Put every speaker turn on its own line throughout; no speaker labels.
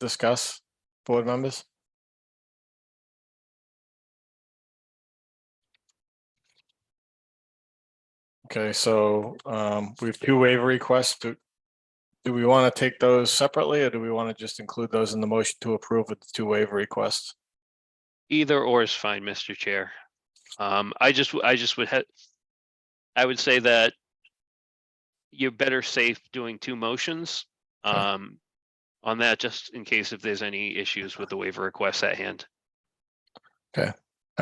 discuss, board members? Okay, so um, we have two waiver requests. Do do we want to take those separately or do we want to just include those in the motion to approve with the two waiver requests?
Either or is fine, Mr. Chair. Um, I just, w- I just would have, I would say that you're better safe doing two motions, um, on that, just in case if there's any issues with the waiver requests at hand.
All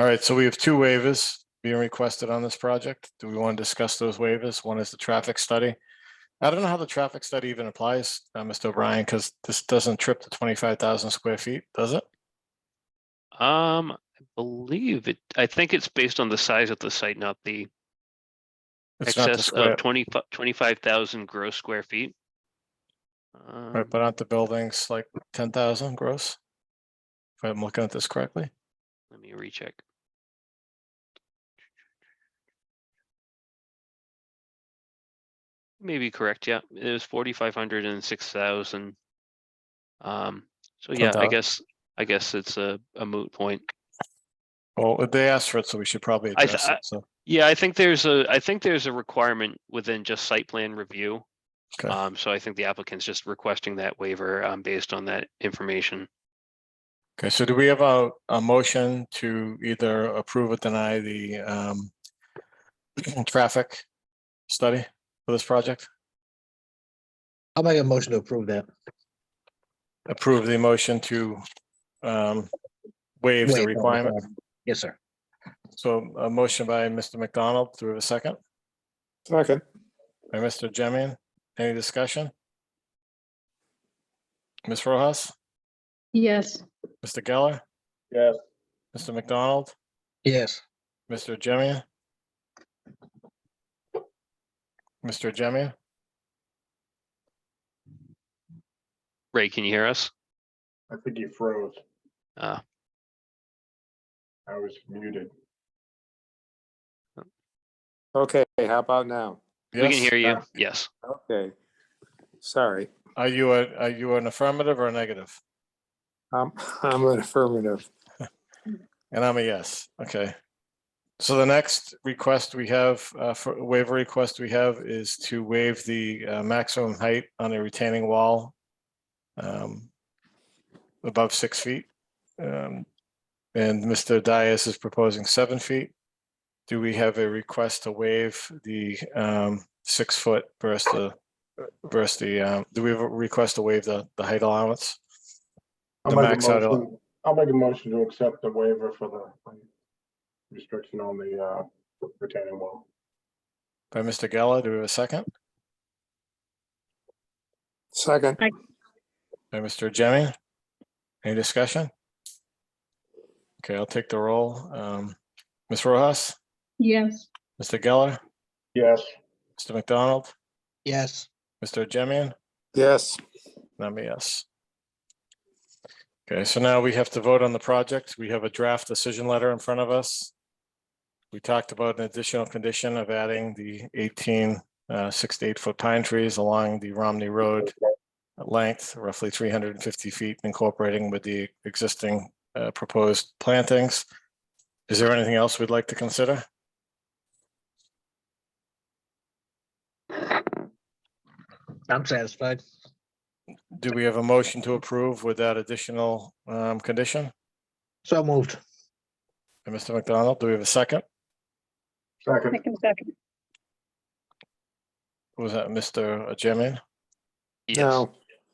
right, so we have two waivers being requested on this project. Do we want to discuss those waivers? One is the traffic study. I don't know how the traffic study even applies, uh, Mr. O'Brien, because this doesn't trip to twenty-five thousand square feet, does it?
Um, I believe it, I think it's based on the size of the site, not the
It's not the
excess
square-
of 25 25,000 gross square feet.
Right,
Um,
but aren't the buildings like ten thousand gross? If I'm looking at this correctly,
Let me recheck. Maybe correct, yeah. It was forty-five hundred and six thousand. Um, so yeah, I
Fantastic.
guess, I guess it's a, a moot point.
well, uh, they asked for it, so we should probably
I th-
address it, so,
Yeah, I think there's a, I think there's a requirement within just site plan review.
Okay.
Um, so I think the applicant's just requesting that waiver, um, based on that information.
okay, so do we have a, a motion to either approve or deny the, um, traffic study for this project?
I'll make a motion to approve that.
Approve the motion to, um, waive
Waive
the
the
requirement,
requirement. Yes, sir.
so a motion by Mr. McDonald, do we have a second?
Second,
By Mr. Jemian, any discussion? Ms. Rojas,
Yes,
Mr. Geller?
yes,
Mr. McDonald,
Yes,
Mr. Jemian? Mr. Jemian?
Ray, can you hear us?
I think you froze.
Uh,
I was muted.
Okay, how about now?
we can
Yes?
hear you.
uh,
Yes.
Okay. Sorry,
Are you a, are you an affirmative or a negative?
I'm, I'm an affirmative.
And I'm a yes, okay. So the next request we have, uh, for waiver request we have is to waive the uh, maximum height on a retaining wall um, above six feet. Um, And Mr. Dias is proposing seven feet. Do we have a request to waive the um, six foot versus the versus the, um, do we have a request to waive the, the height allowance?
I'll
The
make a
max out of-
motion- I'll make a motion to accept the waiver for the restriction on the uh, retaining wall.
By Mr. Geller, do we have a second?
Second,
By Mr. Jimmy? Any discussion? Okay, I'll take the roll. Um, Ms. Rojas,
yes,
Mr. Geller,
Yes,
Mr. McDonald,
yes,
Mr. Jemian,
yes,
and I'm a yes. Okay, so now we have to vote on the project. We have a draft decision letter in front of us. We talked about an additional condition of adding the 18, uh, six to eight foot pine trees along the Romney Road length, roughly three hundred and fifty feet, incorporating with the existing uh, proposed plantings. Is there anything else we'd like to consider?
I'm satisfied.
Do we have a motion to approve with that additional um, condition?
So moved.
And Mr. McDonald, do we have a second?
I
second,
can second.
Was that Mr. Jemian?
Yes.
no,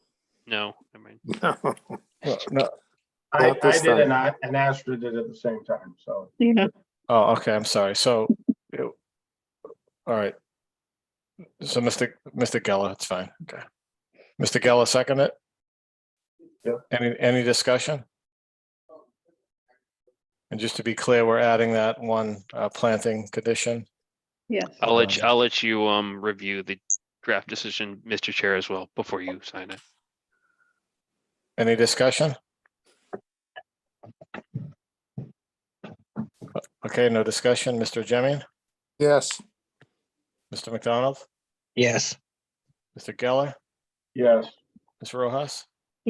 No, I mean,
no.
Well, No,
I,
Not
I
this
did and I, and Astrid did at the same time, so.
Yeah,
oh, okay, I'm sorry, so. it- All right. So Mr. Mr. Geller, it's fine, okay. Mr. Geller, second it?
Yeah.
Any, any discussion? And just to be clear, we're adding that one uh, planting condition.
yes.
I'll let,
Um,
you- I'll let you, um, review the draft decision, Mr. Chair, as well, before you sign it.
Any discussion? Uh, Okay, no discussion. Mr. Jemian,
yes,
Mr. McDonald,
Yes,
Mr. Geller,
Yes,
Ms. Rojas?